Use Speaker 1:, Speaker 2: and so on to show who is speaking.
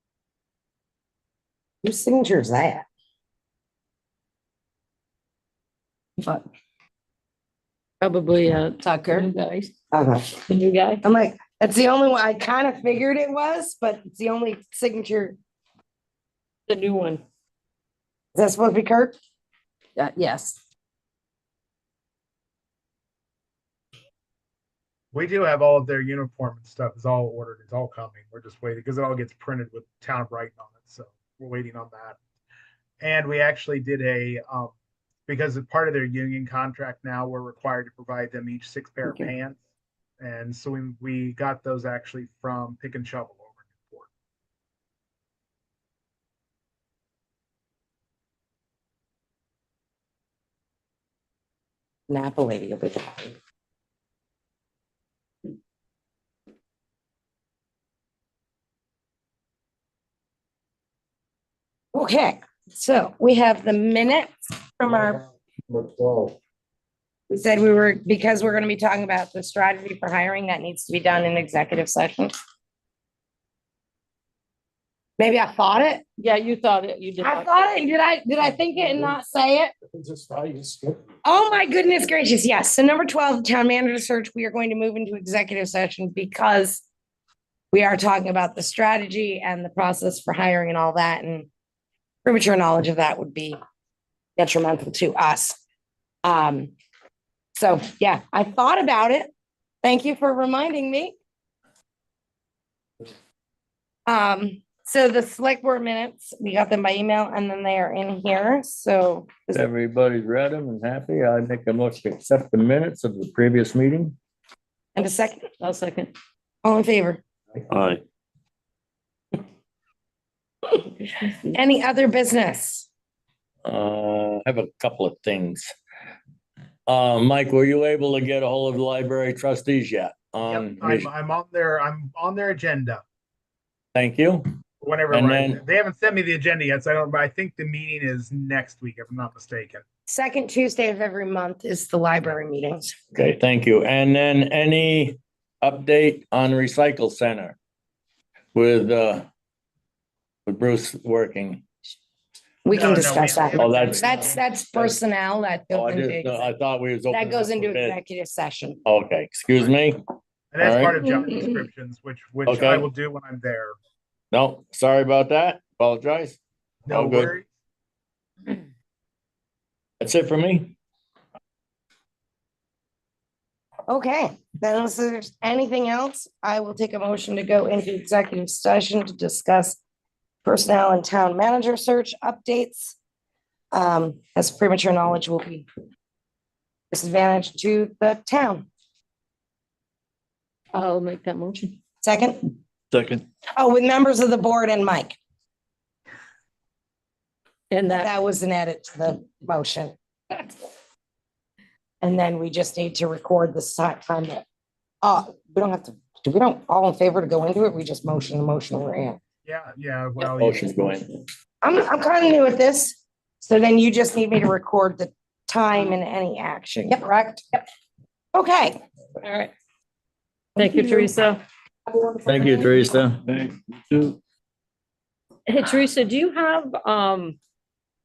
Speaker 1: Whose signature is that?
Speaker 2: But
Speaker 3: Probably, uh,
Speaker 2: Tucker,
Speaker 3: new guys,
Speaker 1: Okay.
Speaker 3: the new guy.
Speaker 1: Uh-huh. I'm like, that's the only one, I kind of figured it was, but it's the only signature.
Speaker 3: The new one.
Speaker 1: Is that supposed to be Kirk?
Speaker 2: uh, yes.
Speaker 4: We do have all of their uniform and stuff is all ordered. It's all coming. We're just waiting because it all gets printed with town of Brighton on it. So we're waiting on that. And we actually did a, um, because of part of their union contract now, we're required to provide them each six pair of
Speaker 1: Okay.
Speaker 4: pants. And so we, we got those actually from Pick and Shovel over in Newport.
Speaker 1: Napoli. you'll be happy. Okay, so we have the minutes from our, we said we were, because we're gonna be talking about the strategy for hiring that needs to be done in executive session. Maybe I thought it.
Speaker 3: Yeah, you thought it, you did.
Speaker 1: I thought it. Did I, did I think it and not say it?
Speaker 5: Just value skip.
Speaker 1: Oh my goodness gracious, yes. So number twelve, town manager search, we are going to move into executive session because we are talking about the strategy and the process for hiring and all that and premature knowledge of that would be detrimental to us. Um, so yeah, I thought about it. Thank you for reminding me. Um, so the select board minutes, we got them by email and then they are in here. So
Speaker 5: If Everybody's read them and happy. I make a motion to accept the minutes of the previous meeting.
Speaker 1: and a second,
Speaker 3: I'll second.
Speaker 1: all in favor?
Speaker 6: Aye.
Speaker 1: Any other business?
Speaker 6: Uh, I have a couple of things. Uh, Mike, were you able to get a hold of the library trustees yet? Um,
Speaker 4: Yep, I'm, I'm on their, I'm on their agenda.
Speaker 6: thank you.
Speaker 4: Whenever,
Speaker 6: And
Speaker 4: I-
Speaker 6: then-
Speaker 4: they haven't sent me the agenda yet, so I don't, but I think the meeting is next week, if I'm not mistaken.
Speaker 1: Second Tuesday of every month is the library meetings.
Speaker 6: Okay, thank you. And then any update on recycle center? With, uh, with Bruce working?
Speaker 1: We
Speaker 4: No,
Speaker 1: can
Speaker 4: no,
Speaker 1: discuss
Speaker 4: we-
Speaker 1: that.
Speaker 6: Oh, that's-
Speaker 1: That's, that's personnel that
Speaker 6: Oh,
Speaker 1: goes
Speaker 6: I just,
Speaker 1: into,
Speaker 6: I thought we was.
Speaker 1: that
Speaker 6: opening
Speaker 1: goes
Speaker 6: up
Speaker 1: into
Speaker 6: a bit.
Speaker 1: executive session.
Speaker 6: Okay, excuse me?
Speaker 4: And that's
Speaker 6: Alright.
Speaker 4: part of job descriptions, which, which I
Speaker 6: Okay.
Speaker 4: will do when I'm there.
Speaker 6: No, sorry about that. Apologize.
Speaker 4: No
Speaker 6: All good.
Speaker 4: worries.
Speaker 6: That's it for me.
Speaker 1: Okay, then unless there's anything else, I will take a motion to go into executive session to discuss personnel and town manager search updates. Um, as premature knowledge will be disadvantage to the town.
Speaker 3: I'll make that motion.
Speaker 1: Second,
Speaker 6: Second.
Speaker 1: oh, with members of the board and Mike.
Speaker 3: And that,
Speaker 1: That was an edit to the motion. And then we just need to record the si- time that, uh, we don't have to, do we don't, all in favor to go into it? We just motion, the motion we're in.
Speaker 4: Yeah, yeah, well. yeah.
Speaker 6: Motion's going.
Speaker 1: I'm, I'm kind of new at this. So then you just need me to record the time and any action, correct? Yep. Okay.
Speaker 3: all right. Thank you, Teresa.
Speaker 6: Thank you, Teresa.
Speaker 3: Hey, Teresa, do you have, um,